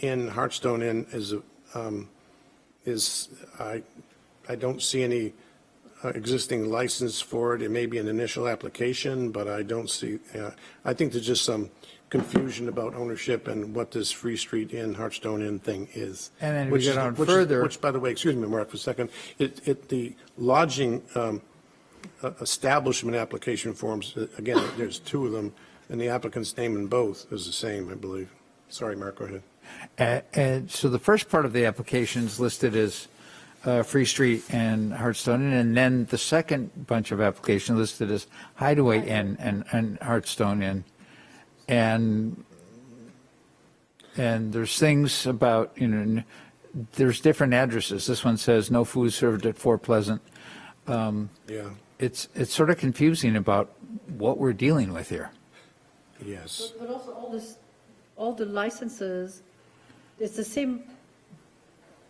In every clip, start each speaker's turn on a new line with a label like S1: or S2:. S1: in Hartstone Inn is, um, is, I, I don't see any uh, existing license for it. It may be an initial application, but I don't see, uh, I think there's just some confusion about ownership and what this Free Street Inn, Hartstone Inn thing is.
S2: And then we
S1: Which is-
S2: get on
S1: which is-
S2: further-
S1: Which, by the way, excuse me, Mark, for a second, it, it, the lodging um, uh, establishment application forms, uh, again, there's two of them, and the applicant's name in both is the same, I believe. Sorry, Mark, go ahead.
S2: A- And so the first part of the application is listed as uh, Free Street and Hartstone Inn, and then the second bunch of application listed as Hideaway Inn and, and Hartstone Inn. And, and there's things about, you know, n- there's different addresses. This one says no food served at Fort Pleasant.
S1: Yeah,
S2: It's, it's sort of confusing about what we're dealing with here.
S1: yes.
S3: But also all this, all the licenses, it's the same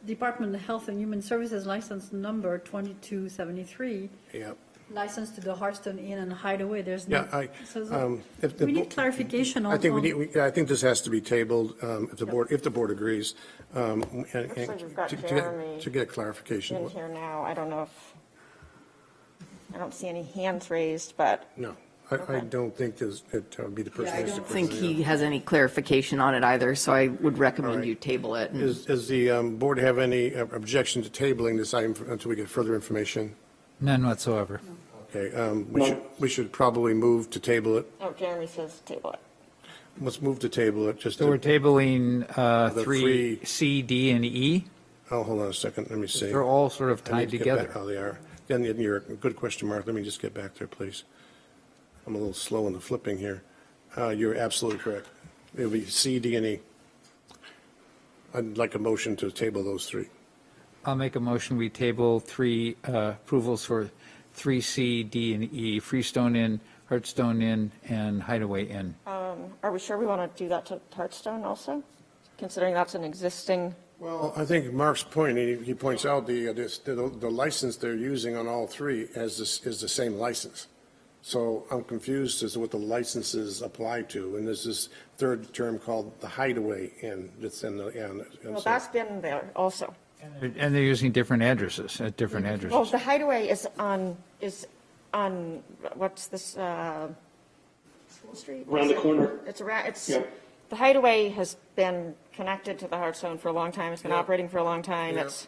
S3: Department of Health and Human Services license number 2273,
S1: Yeah,
S3: license to the Harston Inn and Hideaway, there's no.
S1: yeah, I,
S3: Mm-hmm. so it's-
S1: um, if the.
S3: We need
S1: bo-
S3: clarification on.
S1: I think we
S3: on-
S1: need, we- I think this has to be tabled, um, if the board, if the board agrees. um, and- and
S4: Actually, we've got
S1: to- to get-
S4: Jeremy
S1: To get clarification.
S4: in here now. I don't know if, I don't see any hands raised, but
S1: No, I, I don't think this, it uh, would be the person.
S5: I
S1: who's the
S5: don't think
S1: person, yeah.
S5: he has any clarification on it either, so I would
S1: All
S5: recommend
S1: right.
S5: you table it. and-
S1: Is, does the um, board have any uh, objection to tabling this item until we get further information?
S2: None whatsoever.
S1: Okay, um, we should, we should probably move to table it.
S4: oh, Jeremy says table it.
S1: Let's move to table it, just
S2: So we're
S1: to,
S2: tabling uh,
S1: The
S2: three,
S1: three-
S2: C, D, and E.
S1: oh, hold on a second, let me see.
S2: They're all sort of
S1: I need
S2: tied
S1: to get back-
S2: together.
S1: Oh, they are. Then you're, good question, Mark. Let me just get back there, please. I'm a little slow in the flipping here. Uh, You're absolutely correct. It'll be C, D, and E. I'd like a motion to table those three.
S2: I'll make a motion, we table three uh, approvals for 3C, D, and E, Freestone Inn, Hartstone Inn, and Hideaway Inn.
S4: Um, Are we sure we want to do that to Hartstone also? Considering that's an existing,
S1: Well, I think Mark's point, he he points out the, uh, this- the the license they're using on all three as this, is the same license. So I'm confused as to what the licenses apply to, and there's this third term called the hideaway in, that's in the, and. and
S4: well,
S1: so-
S4: that's been there also.
S2: And they're using different addresses, at different
S4: Well,
S2: addresses.
S4: the hideaway is on, is on, what's this, uh, School Street?
S6: Around the corner.
S4: It's around, it's,
S6: Yeah.
S4: the hideaway has been connected to the Hartstone for a long time. It's been operating for a long time.
S1: Yeah.
S4: It's,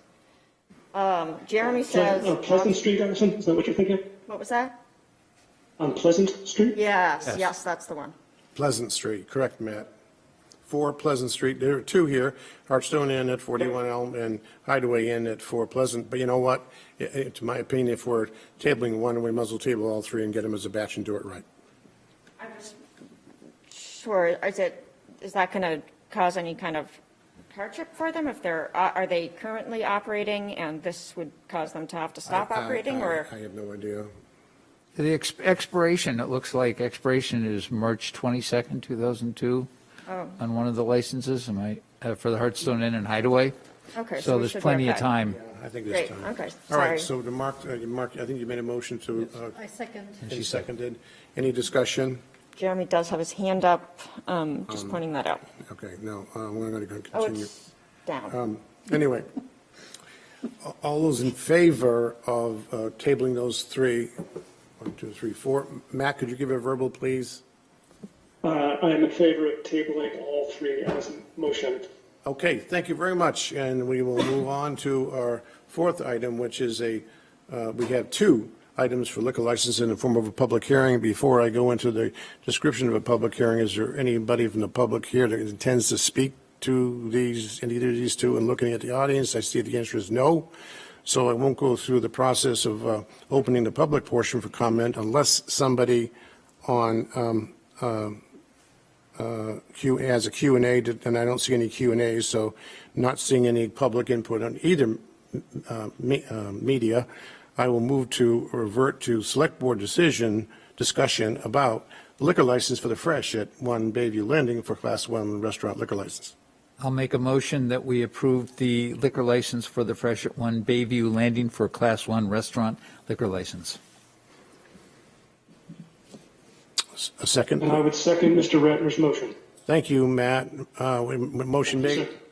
S4: um, Jeremy
S6: So, on Oh, Pleasant
S4: says,
S6: Street, Allison, is that what you're thinking?
S4: what was that?
S6: On Pleasant Street?
S4: Yes, yes, that's the one.
S1: Pleasant Street, correct, Matt? Four Pleasant Street, there are two here, Hartstone Inn at 41 Elm and Hideaway Inn at 4 Pleasant, but you know what? I- I- To my opinion, if we're tabling one, we muzzle table all three and get them as a batch and do it right.
S4: I'm just Sure, is it, is that going to cause any kind of hardship for them if they're, uh, are are they currently operating and this would cause them to have to stop
S1: I- I-
S4: operating or?
S1: I I have no idea.
S2: The ex- expiration, it looks like expiration is March 22nd, 2002,
S4: Oh.
S2: on one of the licenses, am I, uh, for the Hartstone Inn and Hideaway.
S4: Okay, so
S2: So
S4: we
S2: there's
S4: should
S2: plenty of
S4: work that.
S2: time.
S1: I think it's
S4: Great,
S1: time.
S4: okay,
S1: All
S4: sorry.
S1: right, so to Mark, uh, Mark, I think you made a motion to, uh,
S3: I second.
S1: and seconded. Any discussion?
S4: Jeremy does have his hand up, um, just pointing that out.
S1: Okay, no, uh, we're going to
S4: Oh,
S1: continue.
S4: it's down.
S1: Anyway, a- all those in favor of uh, tabling those three, one, two, three, four. Matt, could you give a verbal, please?
S6: Uh, I am in favor of tabling all three as a motion.
S1: Okay, thank you very much, and we will move on to our fourth item, which is a, uh, we have two items for liquor license in the form of a public hearing. Before I go into the description of a public hearing, is there anybody from the public here that intends to speak to these, any of these two? And looking at the audience, I see the answer is no. So I won't go through the process of uh, opening the public portion for comment unless somebody on um, Q, as a Q and A, and I don't see any Q and As, so not seeing any public input on either uh, me- uh, media, I will move to revert to select board decision, discussion about liquor license for the Fresh at One Bayview Landing for Class One Restaurant Liquor License.
S2: I'll make a motion that we approve the liquor license for the Fresh at One Bayview Landing for Class 1 Restaurant liquor license.
S1: S- A second?
S6: And I would second Mr. Ratner's motion.
S1: Thank you, Matt. Uh, we- m- Motion made,
S6: Second.